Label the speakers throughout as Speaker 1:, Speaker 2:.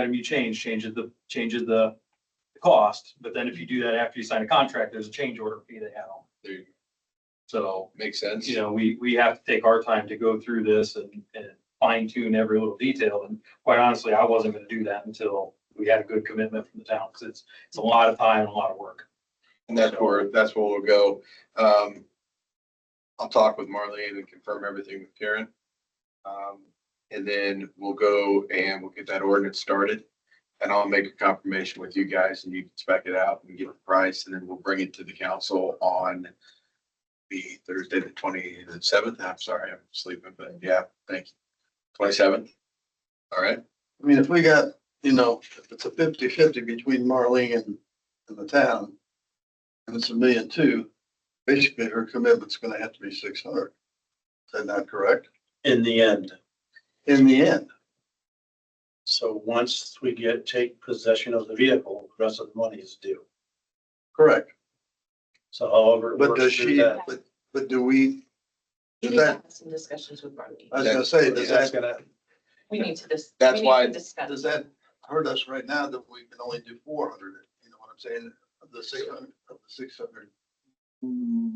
Speaker 1: item you change, changes the, changes the the cost, but then if you do that after you sign a contract, there's a change order fee they have on. it.
Speaker 2: There you go.
Speaker 1: So,
Speaker 2: Makes sense.
Speaker 1: you know, we, we have to take our time to go through this and, and fine tune every little detail. And quite honestly, I wasn't gonna do that until we had a good commitment from the town, because it's, it's a lot of time and a lot of work.
Speaker 2: And that's where, that's where we'll go. Um, I'll talk with Marlene and confirm everything with Karen. Um, and then we'll go and we'll get that ordinance started. And I'll make a confirmation with you guys and you can spec it out and get the price and then we'll bring it to the council on the Thursday, the twenty seventh. I'm sorry, I'm sleeping, but yeah, thank you. Twenty seventh. All right,
Speaker 3: I mean, if we got, you know, if it's a fifty fifty between Marlene and, and the town, and it's a million two, basically her commitment's gonna have to be six hundred. Is that not correct?
Speaker 4: in the end.
Speaker 3: In the end,
Speaker 4: So once we get, take possession of the vehicle, the rest of the money is due.
Speaker 3: correct.
Speaker 4: So however. it
Speaker 3: But
Speaker 4: works
Speaker 3: does
Speaker 4: through
Speaker 3: she,
Speaker 4: that,
Speaker 3: but, but do we,
Speaker 5: We
Speaker 3: does
Speaker 5: need to
Speaker 3: that, Uh,
Speaker 5: have some discussions with Marlene.
Speaker 3: I was gonna say, does
Speaker 4: That's
Speaker 3: that,
Speaker 4: gonna,
Speaker 5: We need to dis.
Speaker 2: That's
Speaker 5: we need
Speaker 2: why-
Speaker 5: to discuss.
Speaker 3: does that hurt us right now that we can only do four hundred? You know what I'm saying? Of the six hundred, of the six hundred.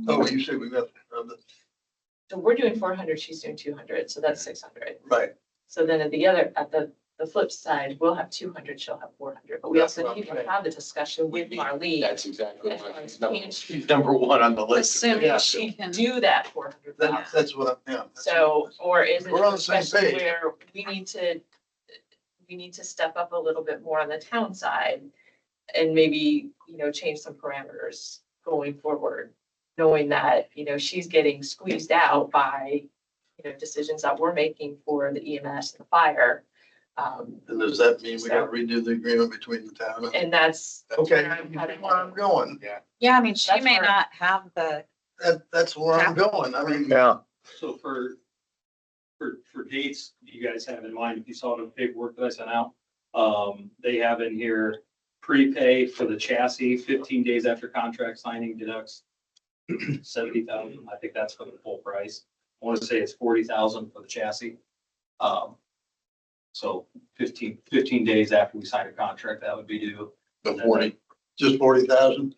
Speaker 3: Oh, you say we got, of the,
Speaker 5: So we're doing four hundred, she's doing two hundred, so that's six hundred.
Speaker 3: right,
Speaker 5: So then at the other, at the, the flip side, we'll have two hundred, she'll have four hundred, but we
Speaker 3: That's
Speaker 5: also
Speaker 3: what
Speaker 5: need
Speaker 3: I'm
Speaker 5: to
Speaker 3: saying.
Speaker 5: have the discussion with Marlene.
Speaker 2: that's exactly
Speaker 5: That's
Speaker 2: my-
Speaker 5: why it's changed.
Speaker 2: number one on the list.
Speaker 5: Assuming she can do that four hundred
Speaker 3: that's,
Speaker 5: thousand.
Speaker 3: that's what I'm, yeah. that's what
Speaker 5: So,
Speaker 3: I'm-
Speaker 5: or is it
Speaker 3: We're on
Speaker 5: a
Speaker 3: the same
Speaker 5: discussion
Speaker 3: page.
Speaker 5: where we need to, we need to step up a little bit more on the town side? And maybe, you know, change some parameters going forward, knowing that, you know, she's getting squeezed out by, you know, decisions that we're making for the EMS and the fire. Um,
Speaker 3: And does that mean we gotta redo the agreement between the town and?
Speaker 5: and that's.
Speaker 3: Okay,
Speaker 5: where I'm headed.
Speaker 3: where I'm going,
Speaker 6: Yeah, I mean, she
Speaker 5: That's
Speaker 6: may
Speaker 5: where-
Speaker 6: not have the,
Speaker 3: that, that's where I'm going, I mean,
Speaker 7: Yeah,
Speaker 1: So for, for, for dates, you guys have in mind, if you saw the paperwork that I sent out, um, they have in here prepay for the chassis fifteen days after contract signing deducts seventy thousand, I think that's for the full price. I want to say it's forty thousand for the chassis. Um, so 15 15 days after we sign a contract, that would be due
Speaker 2: The forty.
Speaker 3: just forty thousand.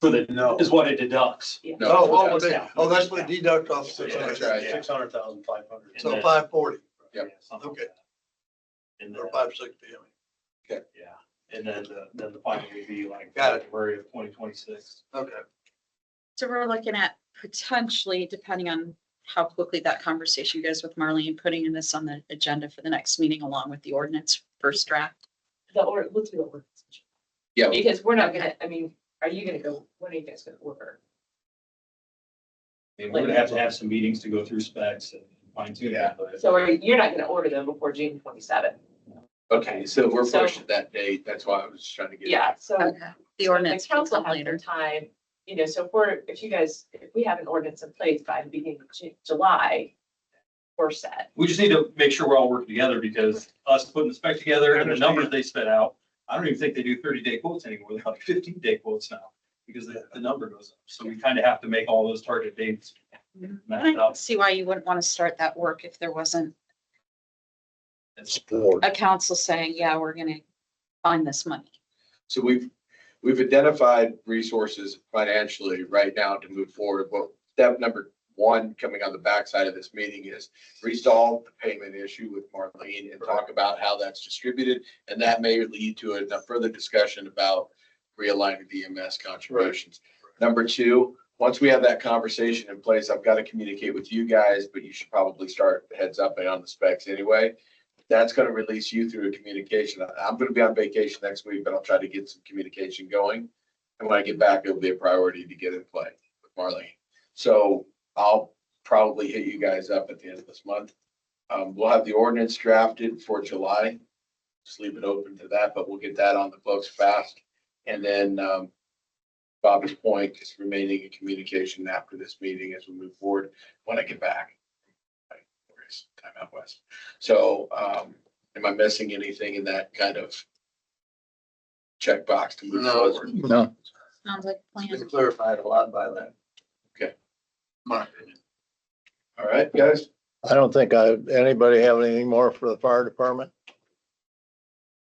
Speaker 1: for the,
Speaker 4: no,
Speaker 1: is what it deducts.
Speaker 2: No,
Speaker 3: Oh,
Speaker 2: that's-
Speaker 3: oh, they- oh, that's what they deduct off six
Speaker 2: That's right.
Speaker 3: hundred,
Speaker 4: six hundred thousand five hundred.
Speaker 3: so five forty
Speaker 2: Yep.
Speaker 1: Yeah, something like
Speaker 3: Okay.
Speaker 1: that. And
Speaker 3: or
Speaker 1: then-
Speaker 3: five sixty. I mean.
Speaker 1: Yeah, and then, the- then the final would be like
Speaker 3: Got it.
Speaker 1: February of twenty twenty-six.
Speaker 3: Okay,
Speaker 6: so we're looking at potentially, depending on how quickly that conversation goes with Marlene, putting this on the agenda for the next meeting along with the ordinance first draft.
Speaker 5: The, or, let's do it.
Speaker 2: Yeah.
Speaker 5: Because we're not gonna, I mean, are you gonna go, when are you guys gonna order?
Speaker 1: I mean, we're gonna have to have some meetings to go through specs and fine tune
Speaker 2: Yeah.
Speaker 1: that, but
Speaker 5: So are, you- you're not gonna order them before June twenty-seventh?
Speaker 2: Okay, so we're
Speaker 5: So-
Speaker 2: pushing that date. That's why I was just trying to get.
Speaker 5: Yeah, so.
Speaker 6: Okay. The ordinance
Speaker 5: The
Speaker 6: will
Speaker 5: council
Speaker 6: come
Speaker 5: has some
Speaker 6: later.
Speaker 5: time, you know, so if we're, if you guys, if we have an ordinance in place by the beginning of Ju- July, we're set.
Speaker 1: we just need to make sure we're all working together because us putting the spec together and the numbers they spit out, I don't even think they do thirty-day quotes anymore. They're like fifteen-day quotes now because the, the number goes up. So we kind of have to make all those target dates
Speaker 6: I
Speaker 1: match
Speaker 6: don't
Speaker 1: up.
Speaker 6: see why you wouldn't want to start that work if there wasn't
Speaker 7: sport.
Speaker 6: a council saying, yeah, we're gonna find this money.
Speaker 2: So we've, we've identified resources financially right now to move forward. But step number one coming on the backside of this meeting is resolve the payment issue with Marlene and talk about how that's distributed. And that may lead to a a further discussion about realigning the EMS contributions. Number two, once we have that conversation in place, I've got to communicate with you guys, but you should probably start heads up and on the specs anyway that's gonna release you through a communication. I- I'm gonna be on vacation next week, but I'll try to get some communication going. And when I get back, it'll be a priority to get in play with Marlene. So I'll probably hit you guys up at the end of this month. Um, we'll have the ordinance drafted for July. Just leave it open to that, but we'll get that on the books fast. And then, um, Bobby's point is remaining in communication after this meeting as we move forward, when I get back. Where's Time out west. So, um, am I missing anything in that kind of checkbox to move
Speaker 3: no,
Speaker 2: forward?
Speaker 3: it's
Speaker 7: No,
Speaker 6: Sounds like a plan.
Speaker 3: been clarified a lot by that.
Speaker 2: Okay.
Speaker 3: My opinion.
Speaker 2: All right, guys?
Speaker 7: I don't think I, anybody have anything more for the fire department?